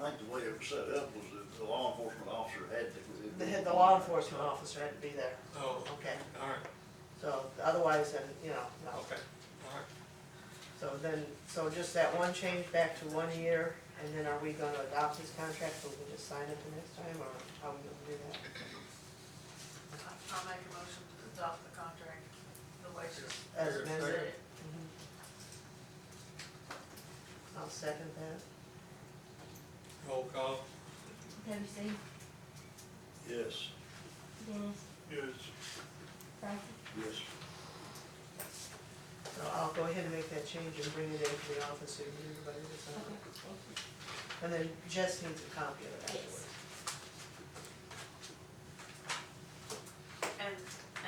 think the way it was set up was that the law enforcement officer had to. The, the law enforcement officer had to be there, Oh, okay? all right, So otherwise, then, you know, no. okay, all right. So then, so just that one change back to one year, and then are we gonna adopt this contract, so we can just sign it the next time, or how are we gonna do that? I'll make a motion to adopt the contract, the wages. As Here, amended. second. Mm-hmm. I'll second that. Roll call, Dempsey, Yes. Dennis, Yes. Francis, Yes. So I'll go ahead and make that change and bring it into the office, so everybody will sign okay, it. thank you. And then Jess needs a copy of it afterwards. And,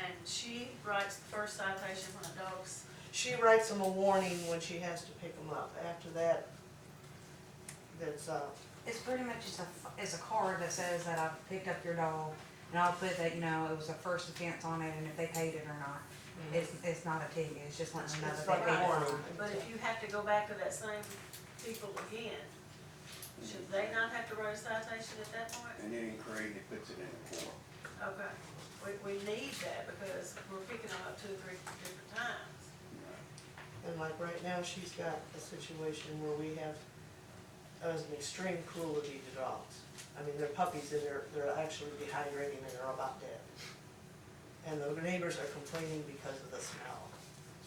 and she writes the first citation when the dogs, She writes them a warning when she has to pick them up. After that, that's, uh, It's pretty much just a, it's a card that says that I picked up your dog, and I'll put that, you know, it was a first offense on it, and if they paid it or not. It's, it's not a ticket, it's just letting them know Mm-hmm. It's that they like a paid it or warning. but not. if you have to go back to that same people again, should they not have to write a citation at that point? And then Craig, it puts it in the form. Okay, we, we need that because we're picking them up two or three different times. and like right now, she's got a situation where we have, uh, an extreme cruelty to dogs. I mean, they're puppies and they're, they're actually dehydrating and they're about dead. And the neighbors are complaining because of the smell.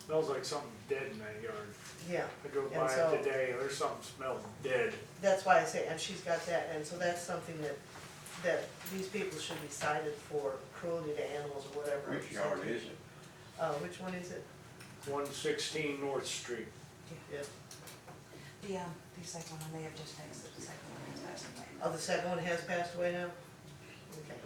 Smells like something dead in that yard. Yeah, I go And by so- it today, there's something smells dead. that's why I say, and she's got that, and so that's something that, that these people should be cited for cruelty to animals or whatever. Which yard is it? Uh, which one is it? One sixteen North Street. Yeah. The, um, the second one, they have just texted the second one, it's passed away. Oh, the second one has passed away now? Okay.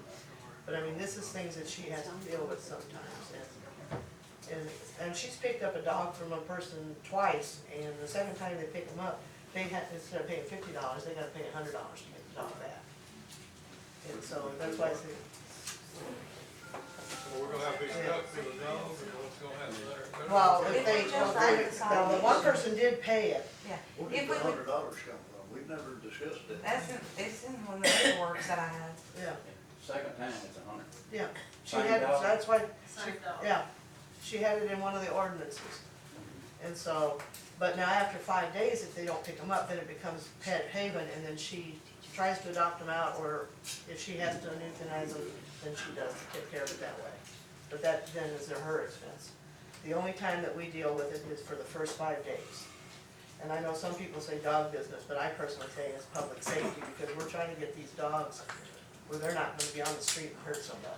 But I mean, this is things that she has to deal with sometimes, and, and, and she's picked up a dog from a person twice, and the second time they pick them up, they had, instead of paying fifty dollars, they gotta pay a hundred dollars to get the dog back. And so that's why I say, well, we're gonna have to instruct the dog, and we're gonna have to let her. cut it. well, if If they, we well, just they, write the well, the one person did pay it, Yeah, Where if did the we would, hundred dollars come from? We've never discussed that. that's in, it's in one of the works that I had. yeah, Second time it's a hundred. yeah. She Same had, it, so dog? that's why Same dog. Yeah, she had it in one of the ordinances. And so, but now after five days, if they don't pick them up, then it becomes pet haven, and then she tries to adopt them out, or if she has to euthanize them, then she does take care of it that way. But that then is at her expense. The only time that we deal with it is for the first five days. And I know some people say dog business, but I personally say it's public safety, because we're trying to get these dogs where they're not gonna be on the street and hurt somebody.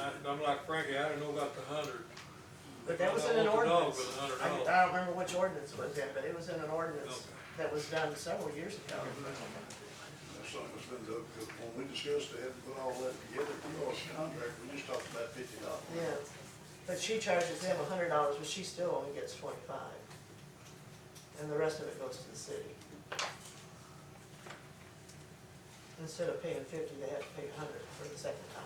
I- I'm like Frankie, I didn't know about the hundred. But that was in I an don't want the dog ordinance. with a hundred I dollars. I don't remember which ordinance it was in, but it was in an ordinance Okay. Mm-hmm. that was done several years ago. That's something that's been done, because when we discussed it, and put all that together, we lost the contract, we just talked about fifty dollars. Yeah, but she charges them a hundred dollars, but she still only gets twenty-five. And the rest of it goes to the city. Instead of paying fifty, they have to pay a hundred for the second time.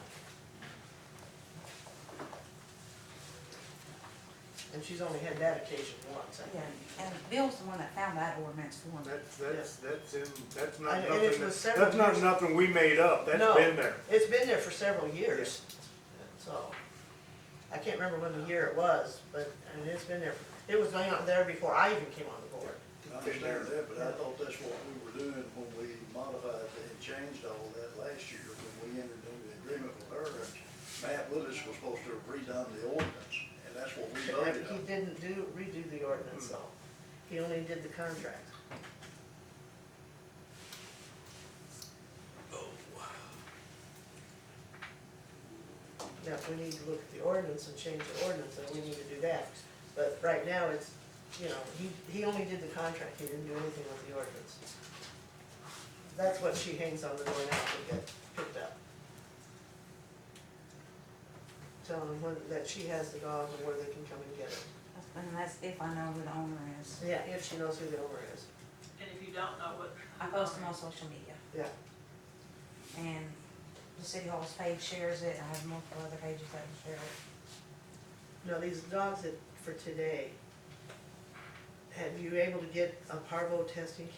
And she's only had that occasion once, I Yeah, think. and Bill's the one that found that ordinance for me. That's, that's, that's in, that's I- not and it nothing, was that- several that's not years- nothing we made up, that's No. been there. It's been there for several years, so, I can't remember when the year it was, but, I mean, it's been there, it was not there before I even came on the board. I understand that, but I thought that's what we were doing when we modified and changed all that last year, when we entered into the agreement with her. and Matt Willis was supposed to have redone the ordinance, and that's what we voted He on. didn't do, redo the ordinance, though, he only did the contract. Oh, wow. Now, if we need to look at the ordinance and change the ordinance, then we need to do that, but right now, it's, you know, he, he only did the contract, he didn't do anything with the ordinance. That's what she hangs on the door now to get picked up. Telling them when, that she has the dog and where they can come and get it. And that's if I know who the owner is. Yeah, if she knows who the owner is. And if you don't know what. I post them on social media. Yeah. And the city hall's page shares it, I have multiple other pages that share it. Now, these dogs that, for today, have you able to get a parvo testing